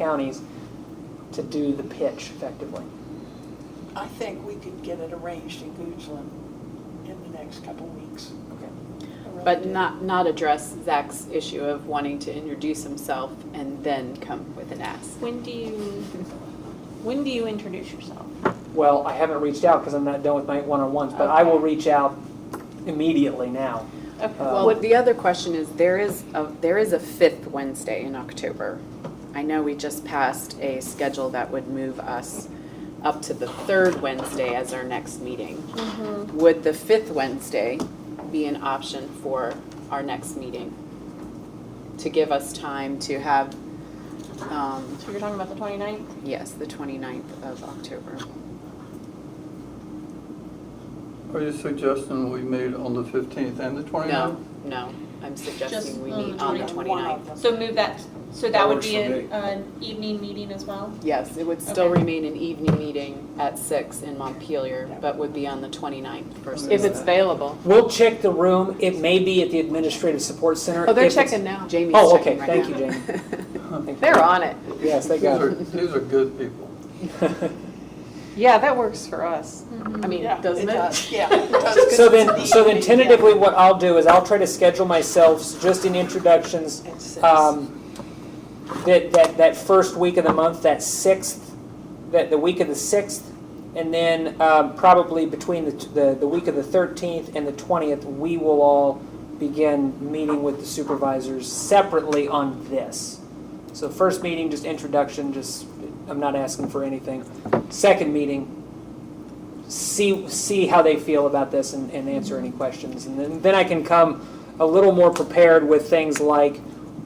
counties to do the pitch effectively. I think we could get it arranged in Goochland in the next couple weeks. Okay. I really But do. not, not address Zach's issue of wanting to introduce himself and then come with an ask. When do you, when do you introduce yourself? Well, I haven't reached out because I'm not done with my one-on-ones, but I will Okay. reach out immediately now. Okay. Uh, Well, the other question is, there is, a there is a fifth Wednesday in October. I know we just passed a schedule that would move us up to the third Wednesday as our next meeting. Mm-hmm. Would the fifth Wednesday be an option for our next meeting? To give us time to have, um, So you're talking about the 29th? yes, the 29th of October. Are you suggesting we meet on the 15th and the 29th? No, uh, no, I'm Just suggesting we on the meet Um, on the 29th. 29th. So move that, so That that would works be for a- me. an evening meeting as well? Yes, it would still Okay. remain an evening meeting at six in Montpelier, but would be on the 29th versus. If it's available. We'll check the room. It may be at the Administrative Support Center. Oh, they're If it's- checking now. Jamie's Oh, checking okay. right Thank now. you, Jamie. They're on it. Yes, they These got are, it. these are good people. Yeah, that works for us. Mm-hmm. I mean, Yeah, doesn't Mm, it? does, Yeah. it does, 'cause So it's then, an so then evening, yeah. tentatively, what I'll do is I'll try to schedule myself just in introductions, At six. um, that, that, that first week of the month, that sixth, that, the week of the sixth, and then, um, probably between the, the, the week of the thirteenth and the twentieth, we will all begin meeting with the supervisors separately on this. So first meeting, just introduction, just, I'm not asking for anything. Second meeting, see see how they feel about this and, and answer any questions. And then, then I can come a little more prepared with things like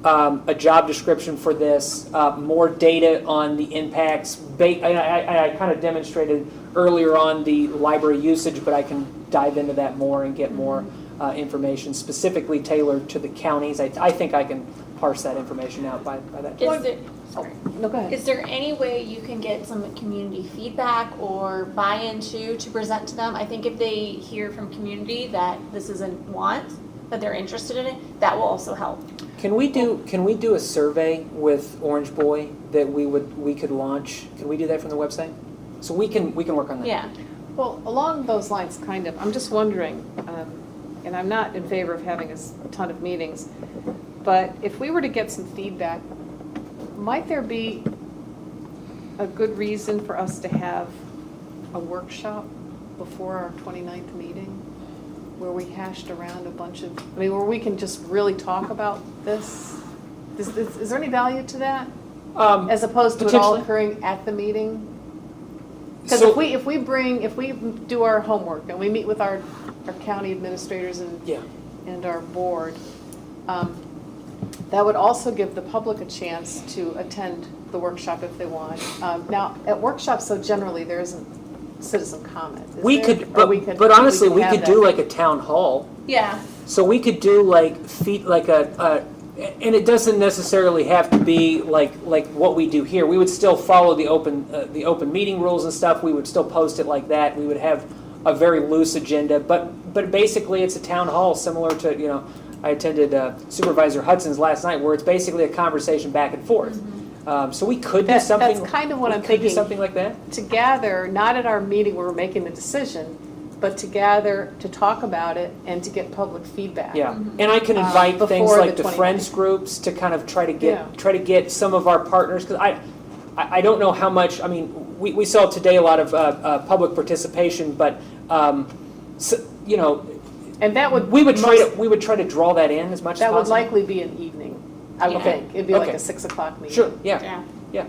um, a job description for this, uh, more data on the impacts. Ba- I, I, I- I kind of demonstrated earlier on the library usage, but I can dive into that more and get more uh, information specifically tailored to the counties. I, I think I can parse that information out by, by that time. Is there, No, go is there any way you can get some community feedback or buy-in to, to present to them? I think if they hear from community that this isn't want, that they're interested in it, that will also help. Can we do, can we do a survey with Orange Boy that we would, we could launch? Can we do that from the website? So we can, we can work on that. Yeah. Well, along those lines, kind of, I'm just wondering, um, and I'm not in favor of having a s- a ton of meetings, but if we were to get some feedback, might there be a good reason for us to have a workshop before our 29th meeting? Where we hashed around a bunch of, I mean, where we can just really talk about this? Is, is is there any value to that? Um, As opposed to it all Potentially. occurring at the meeting? Because So- if we, if we bring, if we do our homework and we meet with our, our county administrators and, Yeah, and our board, um, that would also give the public a chance to attend the workshop if they want. Um, Now, at workshops, so generally, there isn't citizen comment. is we there? could, Or we but, but honestly, we have could that. do like a town hall. Yeah. So we could do like feet, like a, a, and it doesn't necessarily have to be like, like what we do here. We would still follow the open, uh, the open meeting rules and stuff. We would still post it like that. We would have a very loose agenda, but, but basically it's a town hall similar to, you know, I attended uh, Supervisor Hudson's last night where it's basically a conversation back and forth. Um, so we could do That- something. That's kind of what we I'm could do thinking. something like that. to gather, not at our meeting where we're making the decision, but to gather, to talk about it and to get public feedback. Yeah, and I can Uh, invite things before like the the 29th. friends groups to kind of try to Yeah. get, try to get some of our partners, because I, I I don't know how much, I mean, we, we saw today a lot of uh, uh, public participation, but, um, s- you know, And that would. we would try most- to, we would try to draw that in as much as That would possible. likely be an evening, I would Okay, think. It'd be like okay. a six o'clock meeting. Sure, yeah, Yeah. yeah.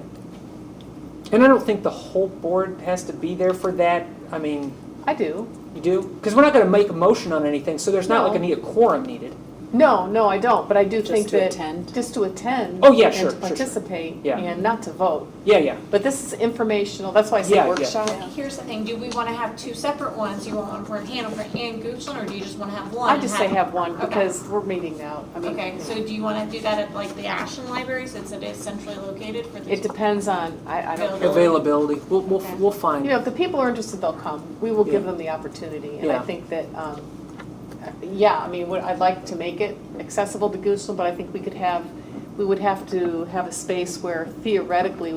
And I don't think the whole board has to be there for that, I mean, I do. you do? Because we're not going to make a motion on anything, so there's not like No. a need- a quorum needed. No, no, I don't, but I do think to that. attend? Just to attend. Oh, yeah, sure, And to sure, sure. participate Yeah. and not to vote. Yeah, yeah, But this is informational, that's why I Yeah, say yeah. workshop. Here's the thing, do we want to have two separate ones? You want one for Hanover and Goochland, or do you just want to have one? I and just say have one Okay. because we're meeting now. I mean, Okay, so do you want to do that at like the Ashland Library since it is centrally located for the? It depends on, I, I don't. availability, we'll, we'll, Okay. we'll find. You know, if the people are interested, they'll come. We will give Yeah. them the opportunity. And Yeah. I think that, um, yeah, I mean, what- I'd like to make it accessible to Goochland, but I think we could have, we would have to have a space where theoretically we